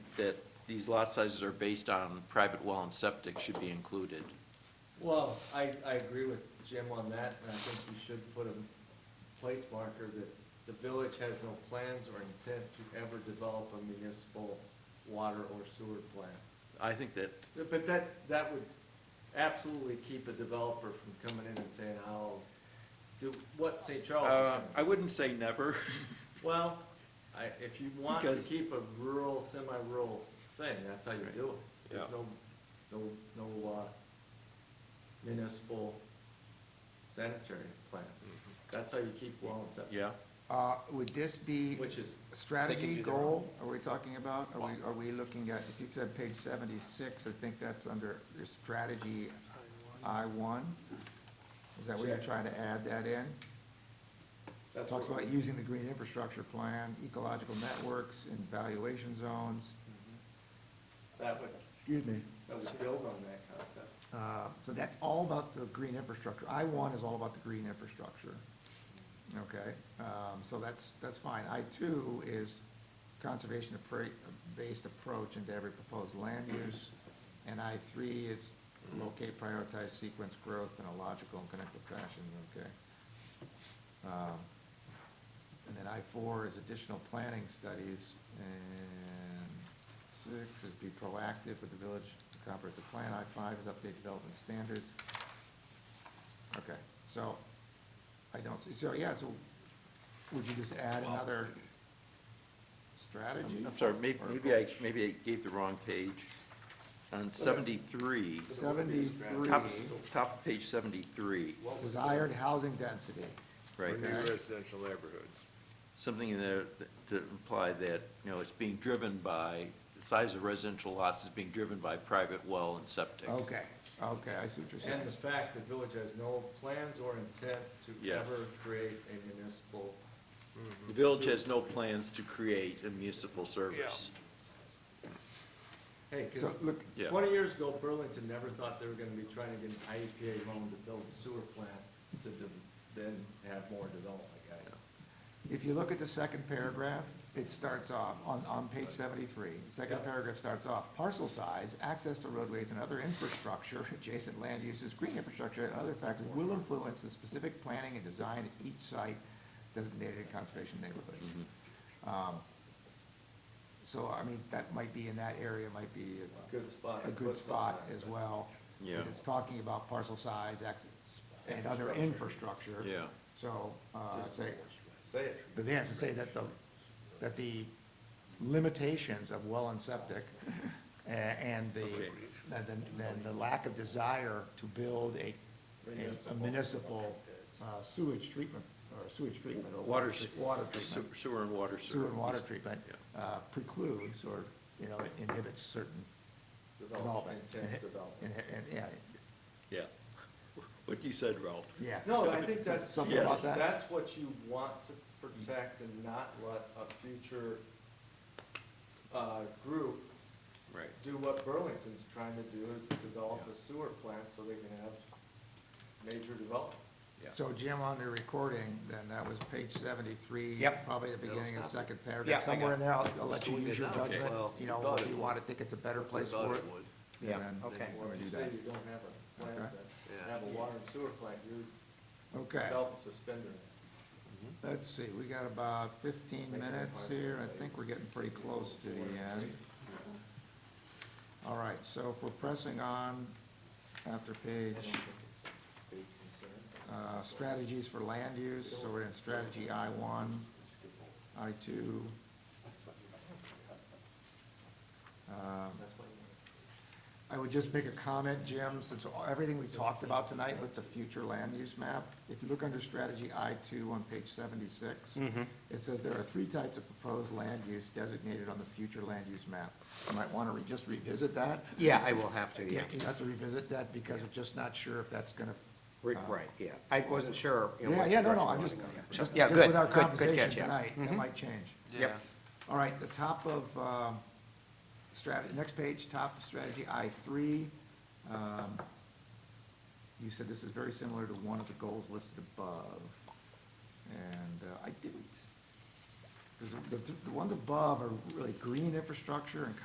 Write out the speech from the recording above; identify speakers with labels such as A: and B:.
A: that these lot sizes are based on private well and septic should be included.
B: Well, I, I agree with Jim on that, and I think you should put a place marker that the village has no plans or intent to ever develop a municipal water or sewer plant.
A: I think that,
B: But that, that would absolutely keep a developer from coming in and saying, I'll do what St. Charles is
A: uh,
B: gonna do."
A: I wouldn't say never.
B: Well, I, if you want to
A: Because-
B: keep a rural, semi-rural thing, that's how you do it. There's
A: Yeah.
B: no, no, no, uh, municipal sanitary plan. That's how you keep well and septic,
A: Mm-hmm. Yeah,
C: Uh, would this be
B: which is,
C: strategy,
A: do their own.
C: goal, are we talking about? Are we, are we looking at, if you said page seventy-six, I think that's under your strategy I one? Is that where you're
B: Check.
C: trying to add that in?
B: that's
C: Talks
B: what,
C: about using the green infrastructure plan, ecological networks, and valuation zones.
B: that would,
C: Excuse me.
B: that would build on that concept.
C: Uh, So that's all about the green infrastructure. I one is all about the green infrastructure. Okay, um, so that's, that's fine. I two is conservation appra- based approach into every proposed land use. And I three is locate, prioritize, sequence growth in a logical and connected fashion, okay? Um, And then I four is additional planning studies, and six is be proactive with the village comprehensive plan. I five is update development standards. Okay, so, I don't see, so, yeah, so, would you just add another strategy?
A: I'm sorry, maybe,
C: Or-
A: maybe I, maybe I gave the wrong page. On seventy-three,
C: Seventy-three,
A: top, top of page seventy-three,
C: desired housing density.
A: right?
C: Okay.
D: New residential neighborhoods.
A: Something in there that- to imply that, you know, it's being driven by, the size of residential lots is being driven by private well and septic.
C: Okay, okay, I see what you're saying.
B: And the fact the village has no plans or intent to
A: Yes.
B: ever create a municipal,
A: The village has no plans to create a municipal service.
B: hey, cause
C: So, look,
A: Yeah.
B: Twenty years ago, Burlington never thought they were gonna be trying to get an IEPA loan to build a sewer plant to de- then have more development, guys.
C: If you look at the second paragraph, it starts off, on, on page seventy-three, the second
B: Yeah.
C: paragraph starts off, parcel size, access to roadways and other infrastructure, adjacent land uses, green infrastructure and other factors will influence the specific planning and design at each site designated conservation neighborhood.
A: Mm-hmm.
C: Um, So, I mean, that might be, in that area might be a
B: Good spot. to
C: a
B: put
C: good spot
B: something.
C: as well.
A: Yeah.
C: because It's talking about parcel size, access, and other infrastructure.
A: Yeah.
C: So, uh,
B: Just-
C: say,
B: Say it.
C: but they have to say that the, that the limitations of well and septic a- and the,
A: Okay.
C: and the, and the lack of desire to build a, a municipal uh, sewage treatment, or sewage treatment, or water,
A: Water,
C: tre- water treatment,
A: sewer- sewer and water service.
C: sewer and water treatment uh, precludes or, you know, inhibits certain
B: Development,
C: development.
B: intense development.
C: And, and, yeah,
A: Yeah. What you said, Ralph.
C: yeah.
B: No, I think that's,
C: Something
A: about
B: yes,
C: that.
B: that's what you want to protect and not let a future, uh, group
A: Right.
B: do what Burlington's trying to do is develop a sewer plant so they can have major development.
C: So Jim, on the recording, then that was page seventy-three.
E: Yep.
C: Probably the beginning of the second paragraph,
E: Yeah, I
C: somewhere
E: got
C: in there, I'll, I'll let you
D: Let's
C: use your
D: do it now.
C: judgment,
D: Well,
C: you know,
D: thought
C: if
D: it
C: you
D: would.
C: want to think it's a better place
D: Thought
C: for it.
D: would.
C: and
E: Yeah,
C: then
E: okay.
C: we'll
B: Or if
C: do
B: you say
C: that.
B: you don't have a plant
C: Okay.
B: that,
D: Yeah.
B: have a water and sewer plant, you're
C: Okay,
B: belt and suspender.
C: let's see, we got about fifteen minutes here, I think we're getting pretty close to the end. All right, so if we're pressing on after
B: I don't
C: page,
B: think it's a big concern.
C: uh, strategies for land use, so we're in strategy I one, I two. Um,
B: That's what you
C: I would just make a comment, Jim, since all- everything we talked about tonight with the future land use map, if you look under strategy I two on page 76 it says there are three types of proposed land use designated on the future land use map. You might want to re, just revisit that.
E: Yeah, I will have to, yeah.
C: Yeah, you have to revisit that because we're just not sure if that's going to.
E: Rick, right, yeah. I wasn't sure. you know,
C: Yeah,
E: what
C: yeah, no, no,
E: direction
C: I'm
E: we
C: just,
E: wanna go, yeah.
C: just,
E: Yeah,
C: just
E: good,
C: with our
E: good, good
C: conversation
E: catch, yeah. Mm-hmm.
C: tonight, it might change.
E: Yep.
C: All right, the top of, um, strategy, next page, top of strategy I three. Um, You said this is very similar to one of the goals listed above, and uh, I didn't. 'Cause the, the ones above are really green infrastructure and